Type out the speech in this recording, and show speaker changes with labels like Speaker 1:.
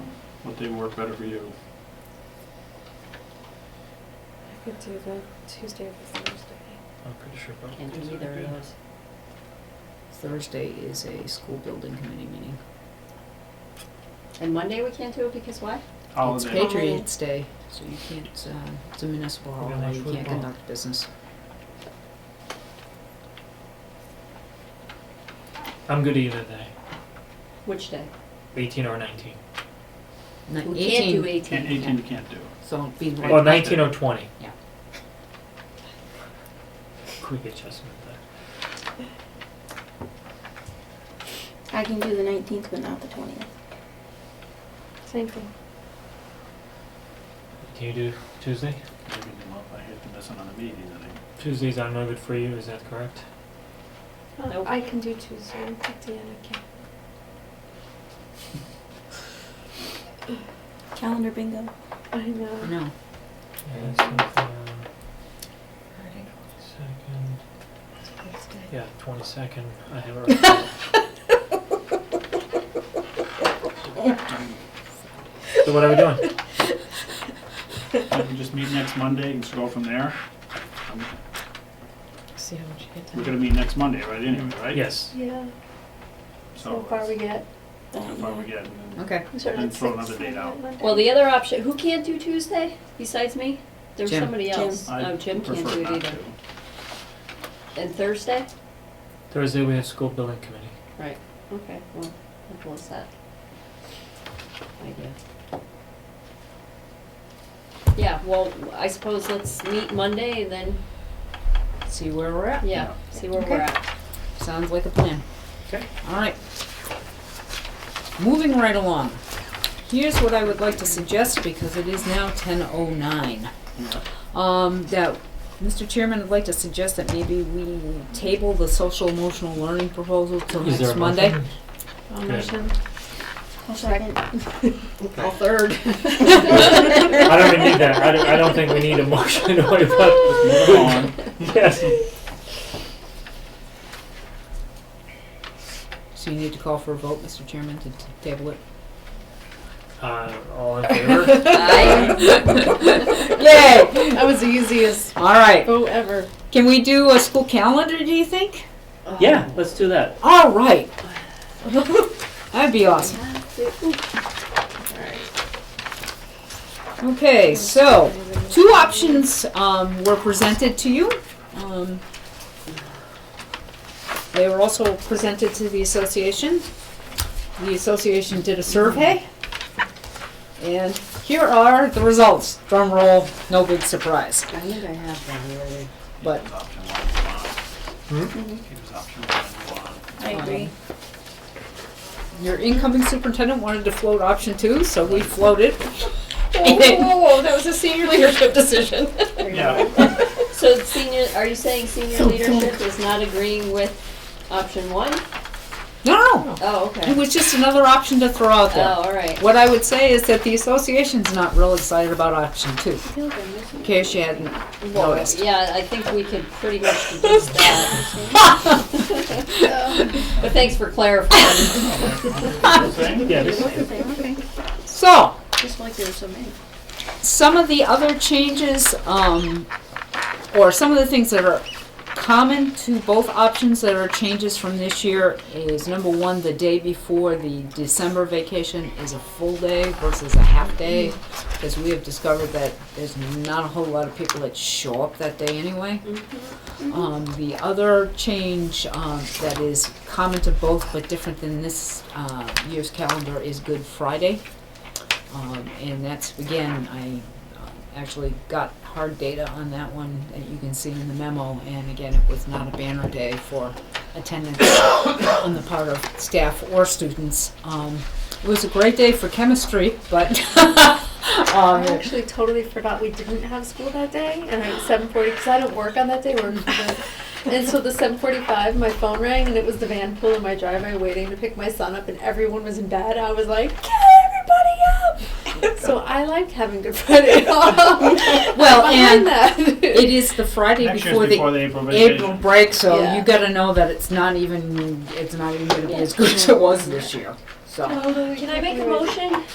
Speaker 1: what day would work better for you?
Speaker 2: I could do the Tuesday or the Thursday.
Speaker 3: I'm pretty sure both
Speaker 4: Can't
Speaker 3: days
Speaker 4: do
Speaker 3: are
Speaker 4: either
Speaker 3: good.
Speaker 4: of those.
Speaker 5: Thursday is a school building committee meeting.
Speaker 4: And Monday we can't do it because why?
Speaker 5: It's
Speaker 1: Holiday.
Speaker 5: Patriots Day, so you can't, it's, uh, it's a municipal
Speaker 3: We got
Speaker 5: holiday,
Speaker 3: much
Speaker 5: you can't
Speaker 3: football.
Speaker 5: conduct business.
Speaker 3: I'm good either day,
Speaker 4: Which day?
Speaker 3: 18 or 19.
Speaker 5: Ni-
Speaker 4: We can't
Speaker 1: And
Speaker 4: do
Speaker 5: 18,
Speaker 4: eighteen.
Speaker 1: eighteen you can't do.
Speaker 5: So it'd be
Speaker 3: Well,
Speaker 5: like,
Speaker 1: Right.
Speaker 3: 19 or 20.
Speaker 5: Yeah.
Speaker 3: Quick adjustment there.
Speaker 6: I can do the 19th, but not the 20th.
Speaker 2: Same thing.
Speaker 3: Can you do Tuesday?
Speaker 1: Maybe the month, I hate to miss another meeting, I think.
Speaker 3: Tuesdays are no good for you, is that correct?
Speaker 4: Nope.
Speaker 2: Oh, I can do Tuesday, but Deanna can't.
Speaker 6: Calendar bingo.
Speaker 2: I know.
Speaker 5: no,
Speaker 3: Yeah, so, uh, Second, um, yeah, 22nd, I have it right now. So what are we doing?
Speaker 1: We can just meet next Monday and just go from there. Um,
Speaker 5: see how much you get
Speaker 1: We're
Speaker 5: done.
Speaker 1: gonna meet next Monday, right, anyway, right?
Speaker 3: Yes,
Speaker 2: Yeah,
Speaker 1: So So
Speaker 2: get.
Speaker 1: far we get, and then
Speaker 5: Okay,
Speaker 2: We started
Speaker 1: And
Speaker 2: at
Speaker 1: throw
Speaker 2: six
Speaker 1: another date
Speaker 2: on
Speaker 1: out.
Speaker 2: Monday.
Speaker 4: Well, the other option, who can't do Tuesday besides me? There's
Speaker 5: Jim.
Speaker 4: somebody else.
Speaker 1: I
Speaker 4: Oh, Jim can't
Speaker 1: prefer
Speaker 4: do it
Speaker 1: not
Speaker 4: either.
Speaker 1: to.
Speaker 4: And Thursday?
Speaker 3: Thursday we have school building committee.
Speaker 4: Right, okay, well, I'll close that. Idea. Yeah, well, I suppose let's meet Monday and then,
Speaker 5: see where we're at,
Speaker 4: yeah, see where we're
Speaker 5: Okay.
Speaker 4: at.
Speaker 5: sounds like a plan.
Speaker 1: Okay.
Speaker 5: Alright. Moving right along, here's what I would like to suggest, because it is now ten oh nine.
Speaker 1: Yeah.
Speaker 5: Um, that, Mr. Chairman, I'd like to suggest that maybe we table the social emotional learning proposal till
Speaker 3: Is there
Speaker 5: next
Speaker 3: a
Speaker 5: Monday.
Speaker 3: motion?
Speaker 2: I'll
Speaker 3: Okay.
Speaker 2: motion.
Speaker 6: I'll second.
Speaker 5: All third.
Speaker 3: I don't even need that, I don't, I don't think we need a motion to waive
Speaker 1: Just move on.
Speaker 3: Yes.
Speaker 5: So you need to call for a vote, Mr. Chairman, to t- table it?
Speaker 3: Uh, all in favor?
Speaker 5: Yay!
Speaker 2: That was the easiest
Speaker 5: All right.
Speaker 2: vote ever.
Speaker 5: Can we do a school calendar, do you think?
Speaker 3: Yeah, let's do that.
Speaker 5: All right. That'd be awesome. Okay, so, two options, um, were presented to you. Um, They were also presented to the association. The association did a survey. And here are the results. Drum roll, no big surprise.
Speaker 4: I think I have that already.
Speaker 5: But-
Speaker 1: Keep us option one if you want. Keep us option one if you want.
Speaker 6: I
Speaker 5: um,
Speaker 6: agree.
Speaker 5: Your incoming superintendent wanted to float option two, so we floated. Oh.
Speaker 2: that was a senior leadership decision.
Speaker 1: Yeah,
Speaker 4: So senior, are you saying senior leadership is not agreeing with option one?
Speaker 5: No, no,
Speaker 4: Oh,
Speaker 5: it
Speaker 4: okay.
Speaker 5: was just another option to throw out
Speaker 4: Oh,
Speaker 5: there.
Speaker 4: all right.
Speaker 5: What I would say is that the association's not real excited about option two, in case you hadn't noticed.
Speaker 4: Yeah, I think we could pretty much deduce that. But thanks for clarifying.
Speaker 3: Yeah, this,
Speaker 5: So,
Speaker 6: Just like there were so many.
Speaker 5: some of the other changes, um, or some of the things that are common to both options that are changes from this year is number one, the day before the December vacation is a full day versus a half day. Because we have discovered that there's not a whole lot of people that show up that day anyway. Um, the other change, um, that is common to both but different than this, uh, year's calendar is Good Friday. Um, and that's, again, I uh, actually got hard data on that one that you can see in the memo. And again, it was not a banner day for attendance on the part of staff or students. Um, it was a great day for chemistry, but,
Speaker 2: I
Speaker 5: um,
Speaker 2: actually totally forgot we didn't have school that day, and I seven forty because I don't work on that day. Work from home. and so the seven forty-five, my phone rang, and it was the van pool in my driveway waiting to pick my son up, and everyone was in bed. I was like, "Get everybody up!" so I liked having Good Friday off.
Speaker 5: well,
Speaker 2: Behind
Speaker 5: and
Speaker 2: that.
Speaker 5: it is the Friday
Speaker 1: Next year's before
Speaker 5: before the
Speaker 1: the April
Speaker 5: April
Speaker 1: vacation.
Speaker 5: break, so
Speaker 2: Yeah.
Speaker 5: you gotta know that it's not even, it's not even gonna be as good as it was this year, so.
Speaker 2: Totally
Speaker 4: Can I make a
Speaker 2: ignored.
Speaker 4: motion?